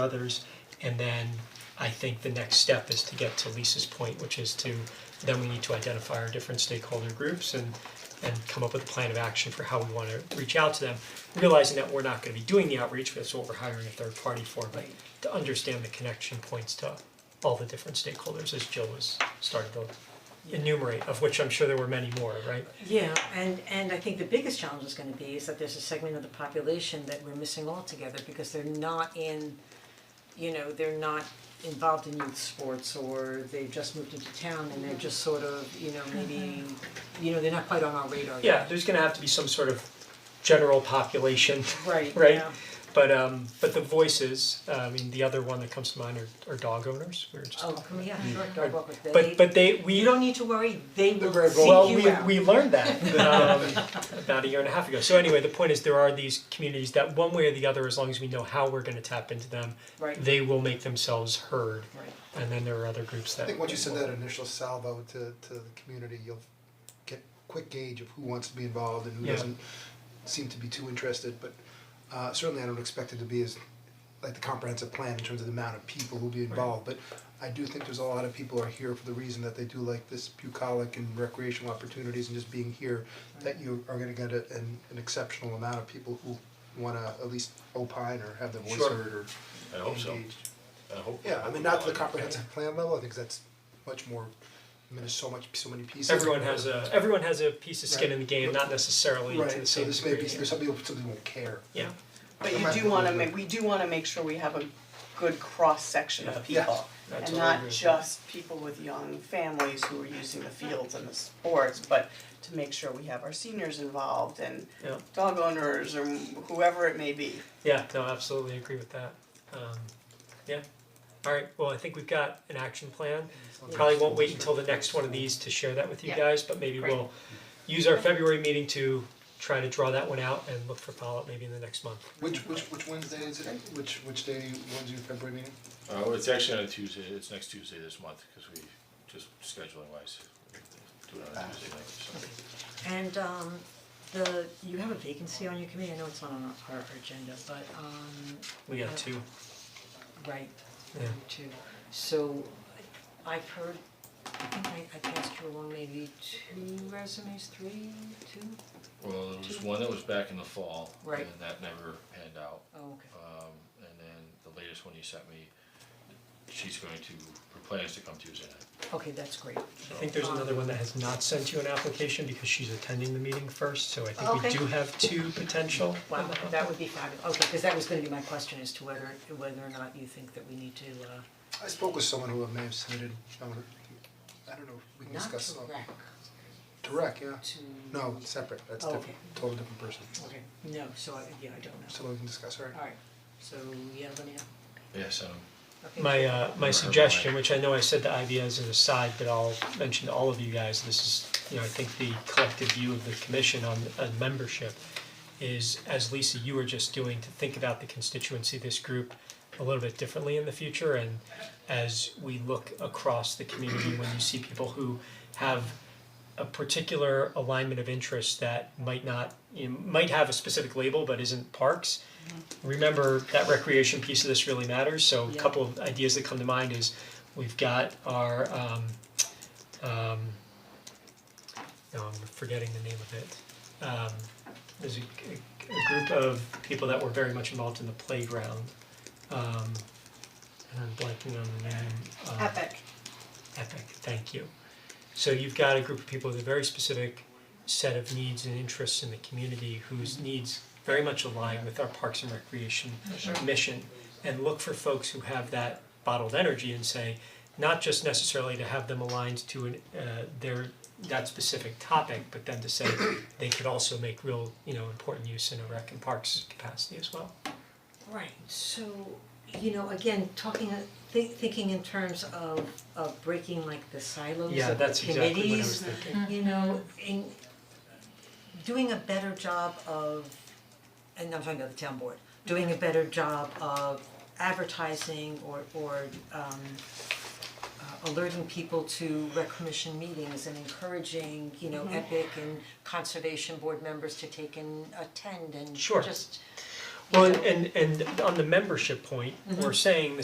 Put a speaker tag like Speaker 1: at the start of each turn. Speaker 1: others. And then I think the next step is to get to Lisa's point, which is to, then we need to identify our different stakeholder groups and and come up with a plan of action for how we wanna reach out to them, realizing that we're not gonna be doing the outreach, that's what we're hiring a third party for, but to understand the connection points to all the different stakeholders, as Jill was starting to enumerate, of which I'm sure there were many more, right?
Speaker 2: Yeah, and and I think the biggest challenge is gonna be is that there's a segment of the population that we're missing altogether because they're not in, you know, they're not involved in youth sports or they've just moved into town and they're just sort of, you know, maybe, you know, they're not quite on our radar yet.
Speaker 1: Yeah, there's gonna have to be some sort of general population
Speaker 2: Right,
Speaker 1: Right.
Speaker 2: yeah.
Speaker 1: But um but the voices, uh, I mean, the other one that comes to mind are are dog owners, we were just.
Speaker 2: Oh, come here, sure, dog walker, they,
Speaker 1: But but they, we.
Speaker 2: you don't need to worry, they will seek you out.
Speaker 1: Well, we we learned that um about a year and a half ago. So anyway, the point is there are these communities that one way or the other, as long as we know how we're gonna tap into them,
Speaker 2: Right, right,
Speaker 1: they will make themselves heard. And then there are other groups that
Speaker 3: I think once you send that initial salvo to to the community, you'll get a quick gauge of who wants to be involved and who
Speaker 1: Yeah.
Speaker 3: doesn't seem to be too interested, but uh certainly I don't expect it to be as like the comprehensive plan in terms of the amount of people who'll be involved, but I do think there's a lot of people are here for the reason that they do like this bucolic and recreational opportunities and just being here, that you are gonna get a an an exceptional amount of people who wanna at least opine or have their voice
Speaker 1: Sure.
Speaker 3: heard or
Speaker 4: I hope so.
Speaker 3: engaged.
Speaker 4: I hope.
Speaker 3: Yeah, I mean, not to the comprehensive plan level, I think that's much more, I mean, there's so much, so many pieces.
Speaker 1: everyone has a everyone has a piece of skin in the game, not necessarily to the
Speaker 3: Right, so
Speaker 1: same
Speaker 3: this may be,
Speaker 1: degree.
Speaker 3: there's some people, some people won't care.
Speaker 1: Yeah,
Speaker 5: But you do wanna make, we do wanna make sure we have a good cross-section of
Speaker 3: Yeah.
Speaker 5: people.
Speaker 1: I
Speaker 5: And
Speaker 1: totally agree
Speaker 5: not
Speaker 1: with
Speaker 5: just people with young families who are using the fields and the sports, but to make sure we have our seniors involved and
Speaker 1: Yeah.
Speaker 5: dog owners or whoever it may be.
Speaker 1: yeah, no, absolutely agree with that. Um yeah. Alright, well, I think we've got an action plan. Probably won't wait until the next one of these to share that with you
Speaker 5: Yeah.
Speaker 1: guys, but maybe
Speaker 5: Great.
Speaker 1: we'll use our February meeting to try to draw that one out and look for follow-up maybe in the next month.
Speaker 3: Which, which, which Wednesday is it, which, which day, when's your February meeting?
Speaker 4: Uh, well, it's actually on a Tuesday, it's next Tuesday this month, cause we, just scheduling wise, do it on a Tuesday night, so.
Speaker 2: and um the, you have a vacancy on your committee, I know it's not on our our agenda, but um
Speaker 1: We got two,
Speaker 2: Right,
Speaker 1: Yeah.
Speaker 2: number two. So I- I've heard, I think I I passed you along maybe two resumes, three, two?
Speaker 4: Well, there was one that was back in the fall, and
Speaker 2: Right.
Speaker 4: then that never panned out,
Speaker 2: Oh, okay.
Speaker 4: um, and then the latest one you sent me, she's going to, her plan is to come Tuesday night,
Speaker 2: Okay, that's great. Um,
Speaker 1: I think there's another one that has not sent you an application because she's attending the meeting first, so I think we
Speaker 2: Okay.
Speaker 1: do have two potential.
Speaker 2: Wow, that would be fabulous. Okay, because that was gonna be my question as to whether whether or not you think that we need to uh
Speaker 3: I spoke with someone who may have submitted, I don't know, I don't know, if we can
Speaker 2: not
Speaker 3: discuss.
Speaker 2: to
Speaker 3: some-
Speaker 2: rec,
Speaker 3: Direct, yeah,
Speaker 2: to
Speaker 3: no, separate, that's
Speaker 2: Oh,
Speaker 3: different, totally different person,
Speaker 2: Okay, no, so I yeah, I don't know.
Speaker 3: someone we can discuss, alright.
Speaker 2: Alright, so yeah, let me know.
Speaker 4: yeah, so,
Speaker 2: Okay.
Speaker 1: My uh my
Speaker 4: Right.
Speaker 1: suggestion, which I know I said to IBA as an aside, but I'll mention to all of you guys, this is, you know, I think the collective view of the commission on on membership is as Lisa, you were just doing, to think about the constituency of this group a little bit differently in the future and as we look across the community, when you see people who have a particular alignment of interest that might not, you know, might have a specific label but isn't parks. Remember that recreation piece of this really matters, so a
Speaker 2: Yeah.
Speaker 1: couple of ideas that come to mind is we've got our um um no, I'm forgetting the name of it. Um there's a, a- a group of people that were very much involved in the playground. Um and I'm blanking on the name. um,
Speaker 5: Epic.
Speaker 1: Epic, thank you. So you've got a group of people with a very specific set of needs and interests in the community whose needs very much align with our parks and recreation mission. And look for folks who have that bottled energy and say, not just necessarily to have them aligned to an, uh, their, that specific topic, but then to say they could also make real, you know, important use in a rec and parks capacity as well.
Speaker 2: Right, so, you know, again, talking, uh, thi- thinking in terms of of breaking like the silos
Speaker 1: Yeah,
Speaker 2: of the
Speaker 1: that's exactly what I was
Speaker 2: committees,
Speaker 1: thinking.
Speaker 2: you know, in doing a better job of, and I'm talking about the town board, doing a better job of advertising or or um uh, alerting people to rec commission meetings and encouraging, you know, Epic and conservation board members to take and attend and
Speaker 1: Sure.
Speaker 2: just
Speaker 1: Well, and and and on the membership point, we're saying the